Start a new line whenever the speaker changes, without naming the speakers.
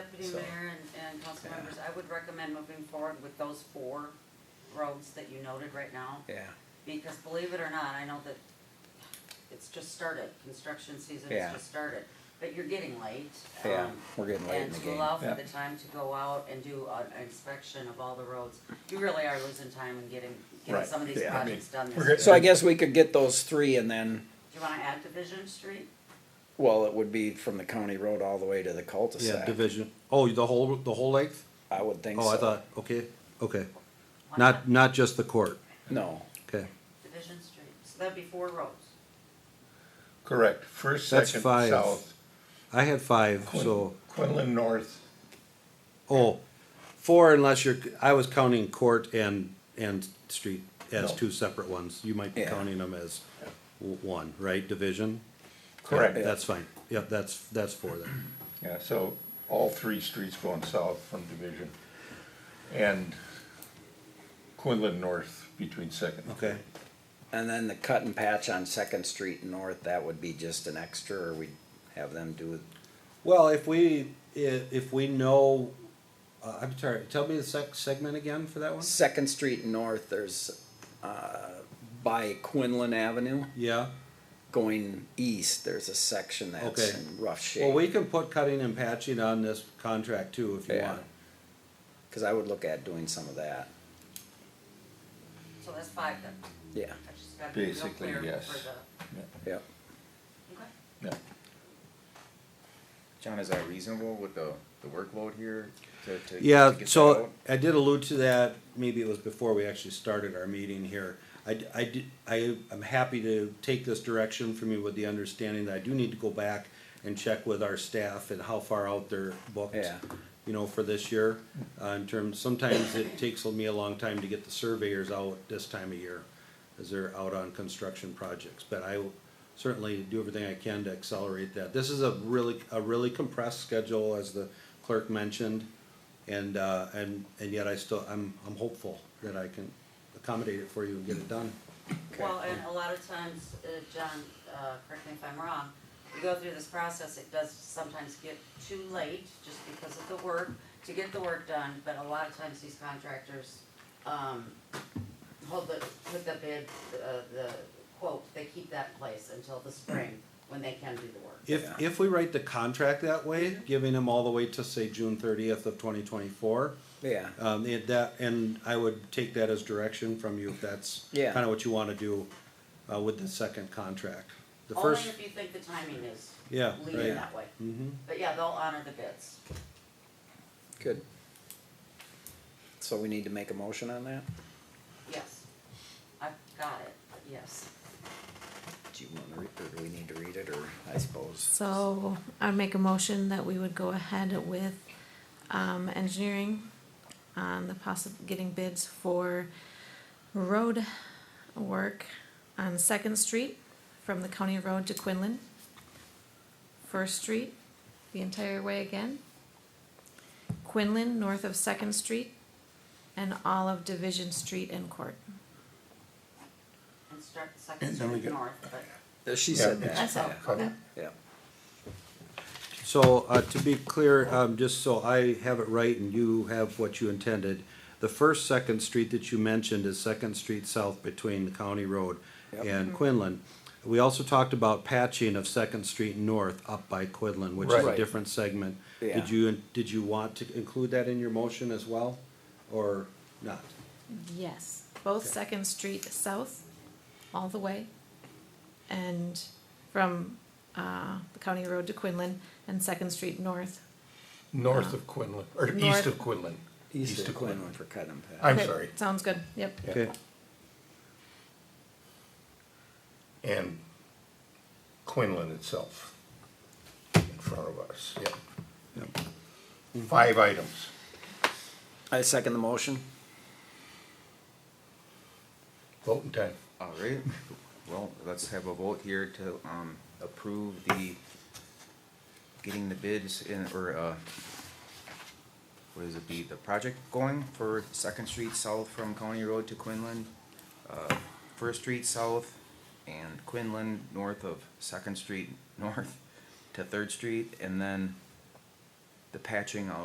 you,
So-
Mayor and, and council
Yeah.
members, I would recommend moving forward with those four roads that you noted right now.
Yeah,
Because believe it or not, I know that it's just started, construction season
Yeah.
has just started, but you're getting late.
yeah,
um,
we're getting late in
And
the
to
game.
allow for
Yeah.
the time to go out and do an inspection of all the roads, you really are losing time in getting, getting
Right,
some of these
yeah, I
projects done this
we're
year.
getting-
So I guess we could get those three and then,
Do you wanna add Division Street?
well, it would be from the county road all the way to the
Yeah,
cul-de-sac.
division. Oh, the whole, the whole length?
I would think so.
Oh, I thought, okay, okay.
Why
Not, not just the court,
No,
okay.
Division Street, so that'd be four roads.
Correct, first,
That's
second,
five.
south,
I had five, so,
Quin- Quinlan North,
oh, four unless you're, I was counting court and, and street as
No.
two separate ones. You might be
Yeah.
counting them as w- one, right, division?
correct,
Yeah.
That's fine. Yep, that's, that's four then.
yeah, so all three streets going south from Division. And Quinlan North between second.
Okay.
and then the cut and patch on Second Street North, that would be just an extra, or we'd have them do it.
Well, if we, if, if we know, uh, I'm sorry, tell me the sec- segment again for that one?
Second Street North, there's, uh, by Quinlan Avenue,
Yeah,
going east, there's a section that's
Okay.
in rough
well,
shape.
we can put cutting and patching on this contract too, if you
Yeah.
want.
Cause I would look at doing some of that,
So that's five then,
yeah,
I just gotta be real
Basically,
clear for the.
yes.
yeah.
Okay.
Yeah,
John, is that reasonable with the, the workload here to, to? to
Yeah,
get that
so
out?
I did allude to that, maybe it was before we actually started our meeting here. I, d- I did, I, am happy to take this direction from you with the understanding that I do need to go back and check with our staff and how far out they're booked.
Yeah.
You know, for this year, uh, in terms, sometimes it takes me a long time to get the surveyors out this time of year as they're out on construction projects, but I will certainly do everything I can to accelerate that. This is a really, a really compressed schedule, as the clerk mentioned, and, uh, and, and yet I still, I'm, I'm hopeful that I can accommodate it for you and get it done.
Well, and a lot of times, uh, John, uh, correct me if I'm wrong, you go through this process, it does sometimes get too late, just because of the work, to get the work done, but a lot of times these contractors, um, hold the, with the bid, uh, the quote, they keep that in place until the spring, when they can do the work.
If,
Yeah.
if we write the contract that way, giving them all the way to say June thirtieth of twenty twenty-four,
Yeah,
um, it, that, and I would take that as direction from you if that's
Yeah.
kinda what you wanna do, uh, with the second contract. The
Only
first,
if you think the timing is
yeah,
leading
right.
that way,
Mm-hmm.
but yeah, they'll honor the bids.
good. So we need to make a motion on that?
Yes, I've got it, yes.
Do you wanna read, or do we need to read it, or I suppose?
So I'd make a motion that we would go ahead with, um, engineering on the possi- getting bids for road work on Second Street from the county road to Quinlan. First Street, the entire way again. Quinlan, north of Second Street, and all of Division Street and Court.
And start the second
And then we
street
get-
north, but.
Uh, She said
Yeah.
that,
That's all.
yeah,
Okay.
yeah,
So, uh, to be clear, um, just so I have it right and you have what you intended, the first Second Street that you mentioned is Second Street South between the County Road
Yep.
and Quinlan. We also talked about patching of Second Street North up by Quinlan, which is a
Right.
different segment.
Yeah.
Did you, did you want to include that in your motion as well, or not?
Yes, both Second Street South, all the way, and from uh, the county road to Quinlan, and Second Street North.
north of Quinlan, or east
North.
of Quinlan.
east of Quinlan for cut and pass.
I'm
Okay,
sorry,
Sounds good, yep.
Yeah.
Okay,
and Quinlan itself in front of us, yeah. Five items.
I second the motion.
Voting time.
All right, well, let's have a vote here to, um, approve the, getting the bids in, or, uh, what is it, be the project going for Second Street South from County Road to Quinlan, uh, First Street South and Quinlan north of Second Street North to Third Street, and then the patching of